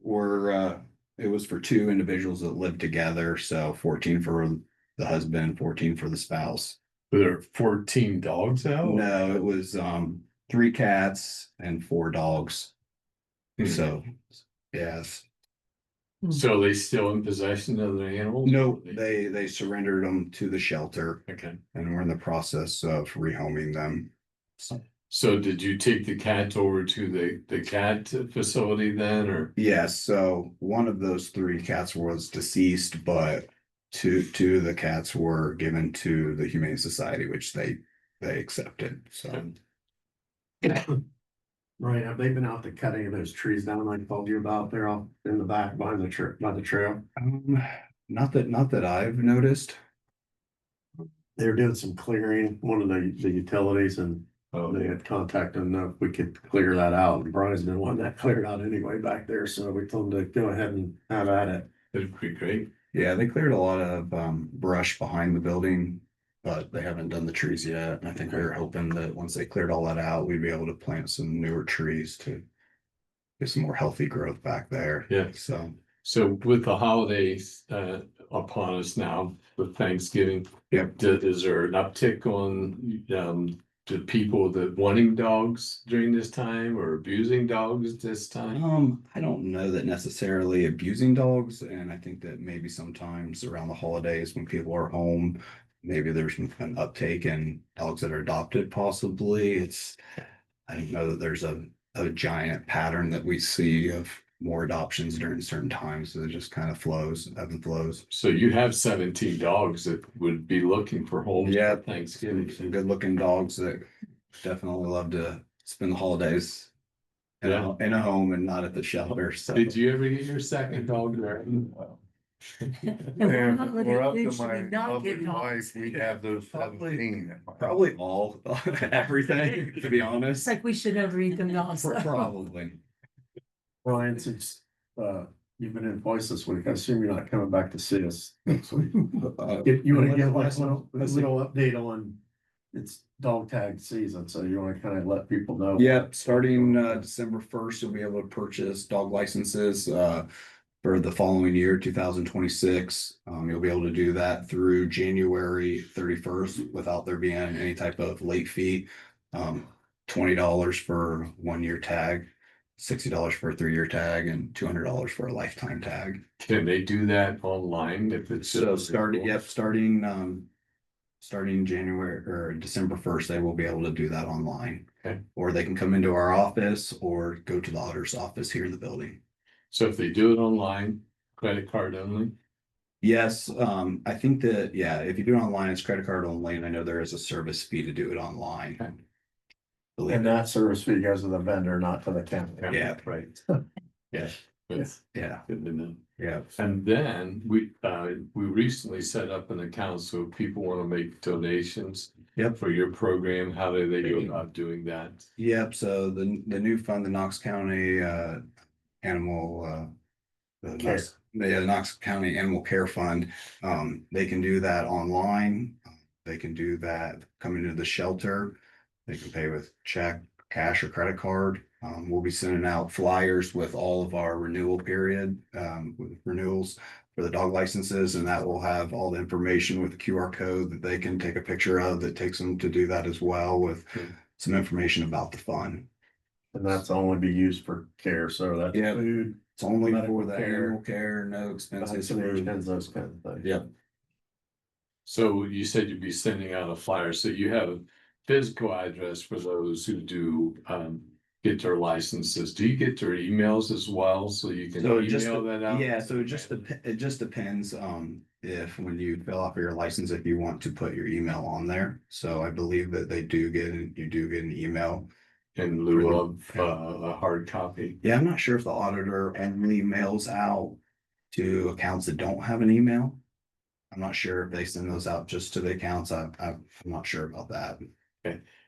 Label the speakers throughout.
Speaker 1: were, uh, it was for two individuals that lived together, so fourteen for the husband, fourteen for the spouse.
Speaker 2: Were there fourteen dogs out?
Speaker 1: No, it was, um, three cats and four dogs, so, yes.
Speaker 2: Hmm. So are they still in possession of the animals?
Speaker 1: No, they, they surrendered them to the shelter
Speaker 2: Okay,
Speaker 1: and we're in the process of rehoming them.
Speaker 2: so did you take the cat over to the, the cat facility then, or?
Speaker 1: Yes, so one of those three cats was deceased, but two, two of the cats were given to the Humane Society, which they, they accepted, so.
Speaker 2: Um,
Speaker 3: Right, have they been out to cut any of those trees down I told you about there off in the back behind the tr- by the trail?
Speaker 1: Um, not that, not that I've noticed.
Speaker 3: They were doing some clearing, one of the, the utilities and
Speaker 2: Oh,
Speaker 3: they had contacted them if we could clear that out. And Brian's been wanting that cleared out anyway back there, so we told him to go ahead and have at it.
Speaker 2: that'd be great.
Speaker 1: Yeah, they cleared a lot of, um, brush behind the building, but they haven't done the trees yet. And I think we were hoping that once they cleared all that out, we'd be able to plant some newer trees to get some more healthy growth back there.
Speaker 2: Yeah.
Speaker 1: So,
Speaker 2: So with the holidays uh upon us now, with Thanksgiving.
Speaker 1: Yep.
Speaker 2: d- Is there an uptick on um the people that wanting dogs during this time or abusing dogs this time?
Speaker 1: um, I don't know that necessarily abusing dogs, and I think that maybe sometimes around the holidays when people are home, maybe there's an an uptake in dogs that are adopted possibly. It's, I don't know that there's a, a giant pattern that we see of more adoptions during certain times. So it just kind of flows, ebbs and flows.
Speaker 2: So you have seventeen dogs that would be looking for homes
Speaker 1: Yeah.
Speaker 2: for
Speaker 1: Some some
Speaker 2: Thanksgiving.
Speaker 1: good looking dogs that definitely love to spend the holidays in a, in a home and not at the shelter, so.
Speaker 2: Did you ever get your second dog there?
Speaker 4: And
Speaker 5: Not
Speaker 4: we're up to
Speaker 5: limited, should we
Speaker 4: my
Speaker 5: not
Speaker 4: lovely
Speaker 5: give up?
Speaker 4: wife, we have those
Speaker 1: Probably-
Speaker 4: seventeen. at my house.
Speaker 1: Probably all, everything, to be honest.
Speaker 5: It's like we should never eat them now.
Speaker 1: Pro- Probably.
Speaker 3: Brian, since, uh, you've been in voice this week, I assume you're not coming back to see us next week.
Speaker 1: Uh,
Speaker 3: If you wanna
Speaker 1: Unless
Speaker 3: give like
Speaker 1: last-
Speaker 3: a little, a
Speaker 1: unless-
Speaker 3: little update on, it's dog tag season, so you wanna kinda let people know.
Speaker 1: Yep, starting uh December first, you'll be able to purchase dog licenses uh for the following year, two thousand twenty-six. Um, you'll be able to do that through January thirty-first without there being any type of late fee. Um, twenty dollars for one-year tag, sixty dollars for a three-year tag, and two hundred dollars for a lifetime tag.
Speaker 2: Can they do that online if it's?
Speaker 1: So starting, yep, starting um. Starting January or December first, they will be able to do that online.
Speaker 2: Okay.
Speaker 1: Or they can come into our office or go to the auditor's office here in the building.
Speaker 2: So if they do it online, credit card only?
Speaker 1: Yes, um, I think that, yeah, if you do it online, it's credit card only, and I know there is a service fee to do it
Speaker 2: Okay.
Speaker 1: online.
Speaker 3: And
Speaker 1: Believe it,
Speaker 3: that service fee goes to the vendor, not to the county.
Speaker 1: Yeah.
Speaker 2: Right. Yes.
Speaker 3: Yes.
Speaker 1: yeah,
Speaker 2: Good to know.
Speaker 1: yeah.
Speaker 2: And then we, uh, we recently set up an account, so if people want to make donations.
Speaker 1: Yep.
Speaker 2: For your program, how do they go about doing that?
Speaker 1: Yep, so the, the new fund, the Knox County, uh, animal, uh. The
Speaker 3: Care.
Speaker 1: Knox, the Knox County Animal Care Fund, um, they can do that online. They can do that coming to the shelter. They can pay with check, cash or credit card. Um, we'll be sending out flyers with all of our renewal period, um, with renewals for the dog licenses and that will have all the information with the QR code that they can take a picture of that takes them to do that as well with
Speaker 3: Hmm.
Speaker 1: some information about the fund.
Speaker 3: And that's only be used for care, so that's
Speaker 1: Yeah.
Speaker 3: food,
Speaker 1: It's only
Speaker 3: Medical
Speaker 1: for the
Speaker 3: care.
Speaker 1: animal care, no expenses. for-
Speaker 3: vaccinations, those kind of things.
Speaker 1: Yep,
Speaker 2: So you said you'd be sending out a flyer, so you have a physical address for those who do, um. Get their licenses, do you get their emails as well, so you can
Speaker 1: So it just
Speaker 2: email that out?
Speaker 1: yeah, so it just, dep- it just depends, um, if when you fill out for your license, if you want to put your email on there. So I believe that they do get, you do get an email.
Speaker 2: In lieu of, uh, a hard copy.
Speaker 1: Yeah, I'm not sure if the auditor only mails out to accounts that don't have an email. I'm not sure if they send those out just to the accounts. I, I- I'm not sure about that.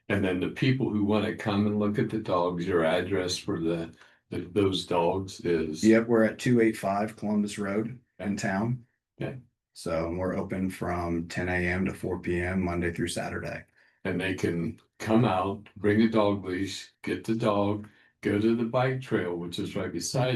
Speaker 2: And then the people who want to come and look at the dogs, your address for the, the- those dogs is.
Speaker 1: Yep, we're at two eight five Columbus Road in town.
Speaker 2: Okay.
Speaker 1: So and we're open from ten AM to four PM, Monday through Saturday.
Speaker 2: And they can come out, bring a dog leash, get the dog, go to the bike trail, which is right beside